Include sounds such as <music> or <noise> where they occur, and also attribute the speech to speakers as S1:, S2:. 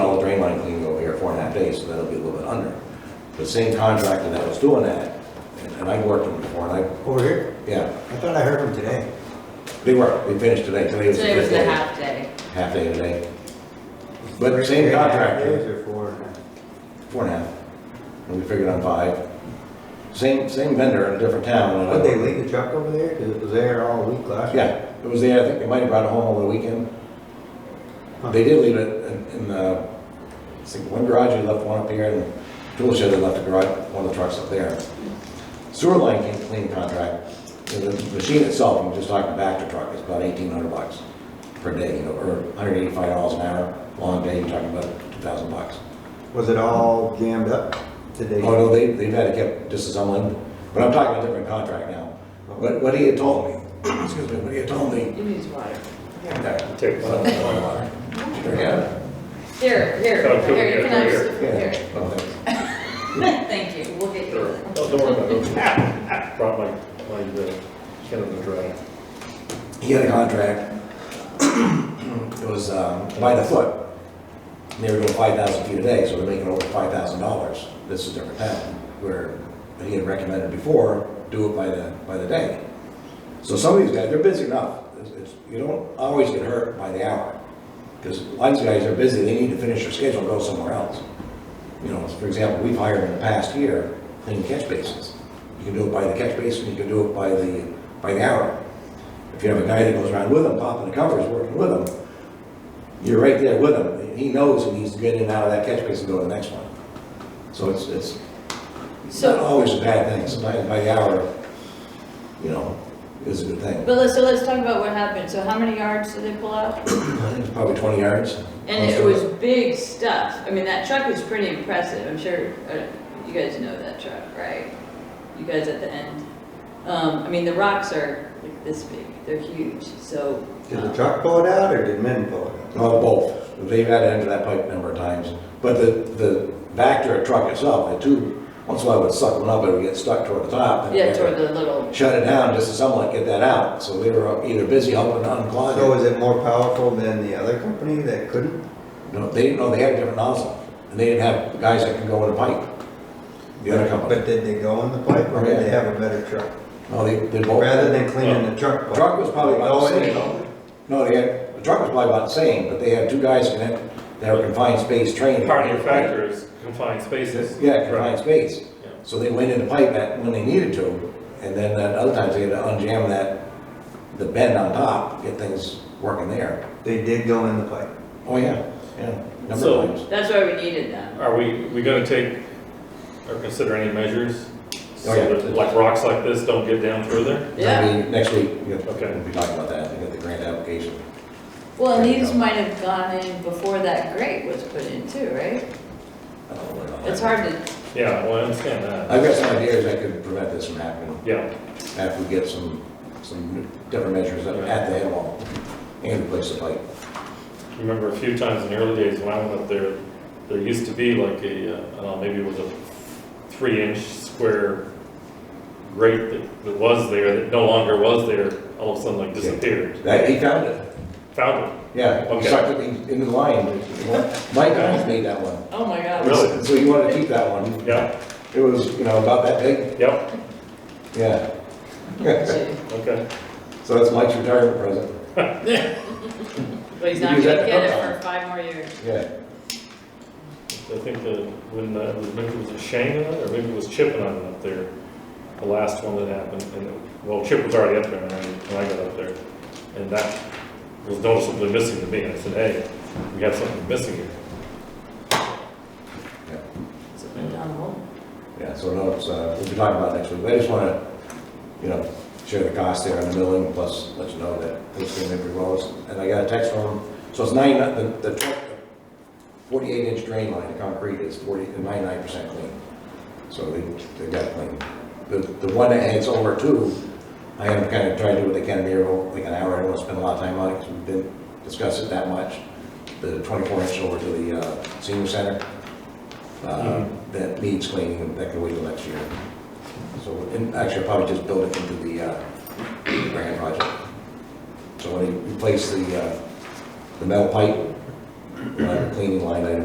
S1: pay, so that'll be a little bit under. The same contractor that was doing that, and- and I worked him before, and I,
S2: Over here?
S1: yeah,
S2: I thought I heard him today.
S1: they were, they finished today, today was a
S3: Today was the
S1: good day.
S3: half day.
S1: Half day today, But same contractor.
S2: Three and a half days or four and a half?
S1: four and a half, and we figured on five. Same, same vendor in a different town. and I-
S2: Would they leave the truck over there? Because it was there all week last week.
S1: Yeah, it was there, I think they might have brought it home over the weekend. They did leave it in, in, uh, I think one garage, they left one up here, and tool shed, they left the garage, one of the trucks up there. Sewer line came clean contract, and the machine itself, I'm just talking back to truck, it's about eighteen hundred bucks per day, you know, or hundred eighty-five dollars an hour, long day, you're talking about two thousand bucks.
S2: Was it all jammed up today?
S1: Oh, no, they, they've had it kept just as unlimited, but I'm talking a different contract now. What, what he had told me, <coughs> excuse me, what he had told me.
S3: It needs water.
S1: Yeah.
S4: Take one.
S1: Sure, yeah.
S3: Here, here,
S4: Oh, cool,
S3: here, you
S4: yeah,
S3: can have
S4: here.
S3: some-
S1: Yeah.
S3: here.
S1: well, thanks.
S2: <laughs>
S3: <laughs> Thank you, we'll get you.
S4: Oh, Don't worry about it. Ah, ah, Brought my, my, uh, can of the dry.
S1: he had a contract, it was um, by the foot. And they were doing five thousand feet a day, so they're making over five thousand dollars. This is a different town, where he had recommended before, do it by the, by the day. So some of these guys, they're busy enough. It's- it's- You don't always get hurt by the hour. Because lots of guys are busy, they need to finish their schedule and go somewhere else. You know, for example, we've hired in the past year, clean catch basins. You can do it by the catch basin, you can do it by the, by the hour. If you have a guy that goes around with them, popping the covers, working with them, you're right there with him. He knows he needs to get in and out of that catch basin, and go to the next one. So it's, it's not
S3: So,
S1: always a bad thing. Sometimes by the hour, you know, is a good thing.
S3: but let's, so let's talk about what happened. So how many yards did they pull out?
S1: I think it's probably 20 yards.
S3: And it was big stuff. I mean, that truck was pretty impressive. I'm sure, uh, you guys know that truck, right? You guys at the end. Um, I mean, the rocks are like this big. They're huge, so.
S2: Did the
S3: um,
S2: truck pull it out or did men pull it out?
S1: Uh, both. They've had to enter that pipe a number of times. But the, the Vector truck itself, the two, once in a while it would suck one up, it would get stuck toward the top. and
S3: um, Yeah, toward the little
S1: Shut it down just to somewhat get that out. So they were either busy helping unclog it.
S2: So is it more powerful than the other company that couldn't?
S1: No, they didn't know they had a different nozzle, and they didn't have guys that can go in a pipe. The other company.
S2: But did they go in the pipe or did they have a better truck?
S1: No, they, they both,
S2: Rather than cleaning the truck. pipe.
S1: Truck was probably about
S2: Go in
S1: the same. no, they had, the truck was probably about the same, but they had two guys in it that were confined space trained.
S4: Part of your factor is confined spaces.
S1: Yeah, confined
S4: Right.
S1: space.
S4: Yeah.
S1: So they went in the pipe at, when they needed to, and then at other times they had to unjam that, the bend on top, get things working there.
S2: They did go in the pipe.
S1: Oh, yeah, yeah, number
S4: So-
S1: of times.
S3: That's why we needed them.
S4: Are we, we gonna take, or consider any measures? So
S1: Oh, yeah.
S4: that, like, rocks like this don't get down further?
S3: Yeah.
S1: Maybe Next week, we'll
S4: Okay.
S1: we'll be talking about that, we got the grant application.
S3: Well, and these might have gone in before that grate was put in too, right?
S1: I don't know what about that.
S3: It's hard to,
S4: Yeah, well, I understand that.
S1: I've got some ideas that could prevent this from happening,
S4: Yeah,
S1: after we get some, some different measures at at the head wall and replace the pipe.
S4: remember a few times in the early days when I went up there, there used to be like a, uh, I don't know, maybe it was a three-inch square grate that, that was there, that no longer was there, all of a sudden like disappeared.
S1: That, he found it,
S4: Found it.
S1: yeah, he
S4: Okay.
S1: sucked it in- into the line, Mike almost made that one.
S3: oh my god.
S4: Really?
S1: So he wanted to keep that one,
S4: Yeah,
S1: it was, you know, about that big,
S4: yep,
S1: yeah,
S3: But
S4: okay.
S1: so that's Mike's retirement present, Use
S3: he's not
S1: that
S3: gonna
S1: to
S3: get
S1: cook
S3: it
S1: on.
S3: for five more years.
S1: yeah.
S4: I think that when, uh, was- maybe it was a Shane on it, or maybe it was Chip on it up there, the last one that happened, and, it- well, Chip was already up there when I, when I got up there. And that was noticeably missing to me, and I said, hey, we got something missing here.
S3: It's been down the hole.
S1: Yeah, so no, it's, uh, we'll be talking about it next week, I just wanna, you know, share the cost there on the milling, plus let you know that it's gonna be well. And I got a text from him, so it's nine, the, the tw- forty-eight inch drain line, the concrete is forty, ninety-nine percent clean. So they, they got it clean. The, the one that heads over two, I am kinda trying to do what they can here, like an hour, I don't wanna spend a lot of time on it, 'cause we didn't discuss it that much. The twenty-four inch over to the, uh, senior center, uh, that needs cleaning, and that can wait till next year. So, and actually, I'll probably just build it into the, uh, grant project. So when they replace the, uh, the metal pipe, uh, cleaning line item